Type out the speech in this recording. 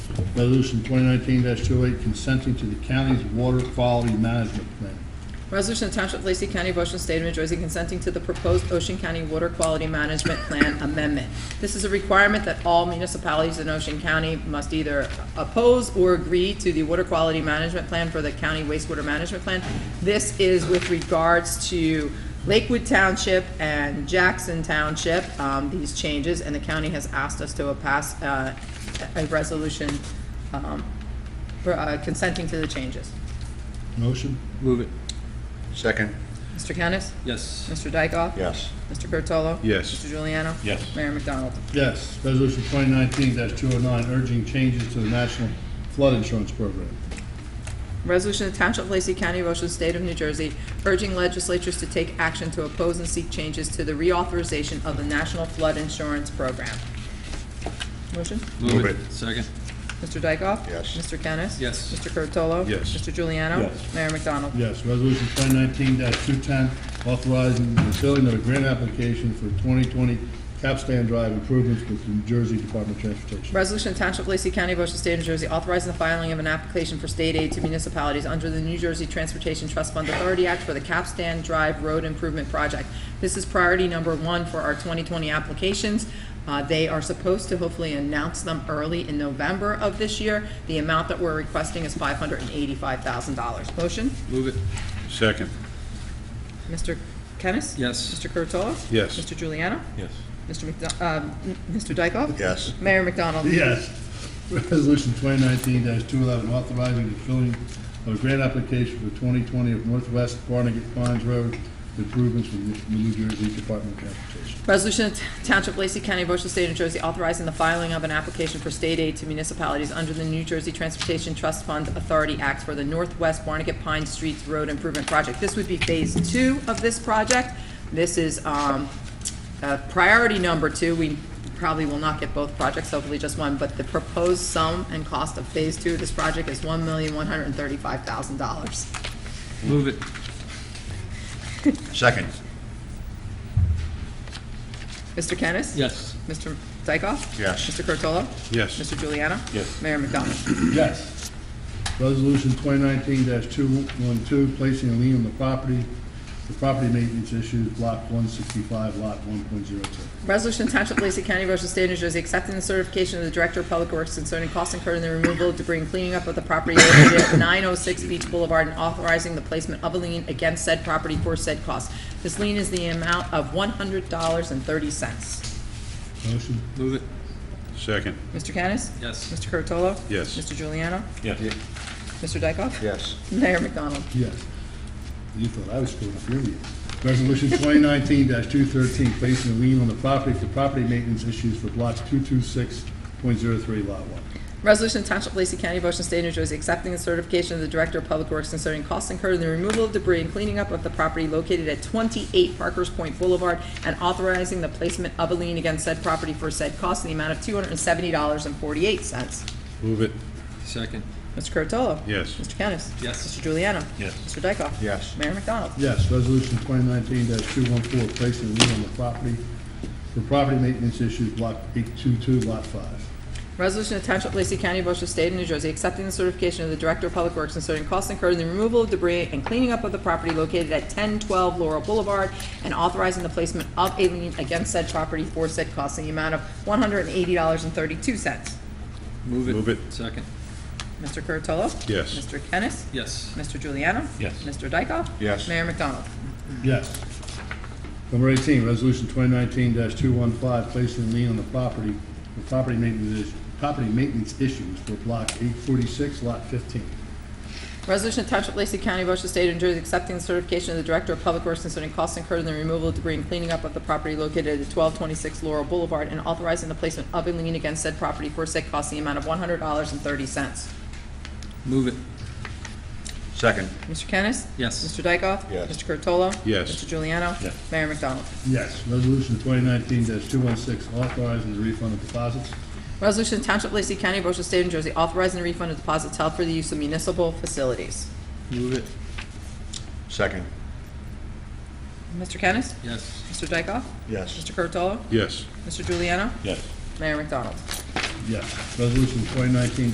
Resolution 2019-08 consenting to the county's water quality management plan. Resolution of Township of Lacey County, Ocean State of New Jersey, consenting to the proposed Ocean County Water Quality Management Plan Amendment. This is a requirement that all municipalities in Ocean County must either oppose or agree to the Water Quality Management Plan for the County Wastewater Management Plan. This is with regards to Lakewood Township and Jackson Township, um, these changes, and the county has asked us to pass, uh, a resolution, um, for, uh, consenting to the changes. Motion? Move it. Second. Mr. Kennis? Yes. Mr. Dykoff? Yes. Mr. Curatolo? Yes. Mr. Juliano? Yes. Mayor McDonald? Yes. Resolution 2019-209 urging changes to the National Flood Insurance Program. Resolution of Township of Lacey County, Ocean State of New Jersey, urging legislatures to take action to oppose and seek changes to the reauthorization of the National Flood Insurance Program. Motion? Move it. Second. Mr. Dykoff? Yes. Mr. Kennis? Yes. Mr. Curatolo? Yes. Mr. Juliano? Yes. Mayor McDonald? Yes. Resolution 2019-210 authorizing the filling of a grant application for 2020 Capstan Drive improvements with the New Jersey Department of Transportation. Resolution of Township of Lacey County, Ocean State of New Jersey, authorizing the filing of an application for state aid to municipalities under the New Jersey Transportation Trust Fund Authority Act for the Capstan Drive Road Improvement Project. This is priority number one for our 2020 applications. Uh, They are supposed to hopefully announce them early in November of this year. The amount that we're requesting is $585,000. Motion? Move it. Second. Mr. Kennis? Yes. Mr. Curatolo? Yes. Mr. Juliano? Yes. Mr. McDo- um, Mr. Dykoff? Yes. Mayor McDonald? Yes. Resolution 2019-211, authorizing the filling of a grant application for 2020 of Northwest Barnegat Pines Road improvements with the New Jersey Department of Transportation. Resolution of Township of Lacey County, Ocean State, New Jersey, authorizing the filing of an application for state aid to municipalities under the New Jersey Transportation Trust Fund Authority Act for the Northwest Barnegat Pine Streets Road Improvement Project. This would be Phase Two of this project. This is um, uh, priority number two. We probably will not get both projects, hopefully just one, but the proposed sum and cost of Phase Two of this project is $1,135,000. Move it. Second. Mr. Kennis? Yes. Mr. Dykoff? Yes. Mr. Curatolo? Yes. Mr. Juliano? Yes. Mayor McDonald? Yes. Resolution 2019-212, placing a lien on the property for property maintenance issues, Block 165, Lot 1.02. Resolution to Township of Lacey County, Ocean State, New Jersey, accepting the certification of the Director of Public Works concerning costs incurred in the removal of debris and cleaning up of the property located at 906 Beach Boulevard and authorizing the placement of a lien against said property for said costs. This lien is the amount of $100.30. Motion? Move it. Second. Mr. Kennis? Yes. Mr. Curatolo? Yes. Mr. Juliano? Yes. Mr. Dykoff? Yes. Mayor McDonald? Yes. You thought I was screwing up your meeting. Resolution 2019-213, placing a lien on the property for property maintenance issues for Block 226.03, Lot 1. Resolution to Township of Lacey County, Ocean State, New Jersey, accepting the certification of the Director of Public Works concerning costs incurred in the removal of debris and cleaning up of the property located at 28 Parkers Point Boulevard and authorizing the placement of a lien against said property for said costs in the amount of $270.48. Move it. Second. Mr. Curatolo? Yes. Mr. Kennis? Yes. Mr. Juliano? Yes. Mr. Dykoff? Yes. Mayor McDonald? Yes, resolution 2019-214, placing a lien on the property for property maintenance issues, Block 822, Lot 5. Resolution of Township of Lacey County, Ocean State, of New Jersey, accepting the certification of the Director of Public Works concerning costs incurred in the removal of debris and cleaning up of the property located at 1012 Laurel Boulevard, and authorizing the placement of a lien against said property for said costs in the amount of $180.32. Move it. Move it. Second. Mr. Curatolo? Yes. Mr. Kennis? Yes. Mr. Juliano? Yes. Mr. Dykoff? Yes. Mayor McDonald? Yes. Number 18, resolution 2019-215, placing a lien on the property for property maintenance, is- property maintenance issues for Block 846, Lot 15. Resolution of Township of Lacey County, Ocean State, New Jersey, accepting the certification of the Director of Public Works concerning costs incurred in the removal of debris and cleaning up of the property located at 1226 Laurel Boulevard and authorizing the placement of a lien against said property for said costs in the amount of $100.30. Move it. Second. Mr. Kennis? Yes. Mr. Dykoff? Yes. Mr. Curatolo? Yes. Mr. Juliano? Yes. Mayor McDonald? Yes. Resolution 2019-216, authorizing the refund of deposits. Resolution of Township of Lacey County, Ocean State, New Jersey, authorizing the refund of deposits held for the use of municipal facilities. Move it. Second. Mr. Kennis? Yes. Mr. Dykoff? Yes. Mr. Curatolo? Yes. Mr. Juliano? Yes. Mayor McDonald? Yes. Resolution 2019-217,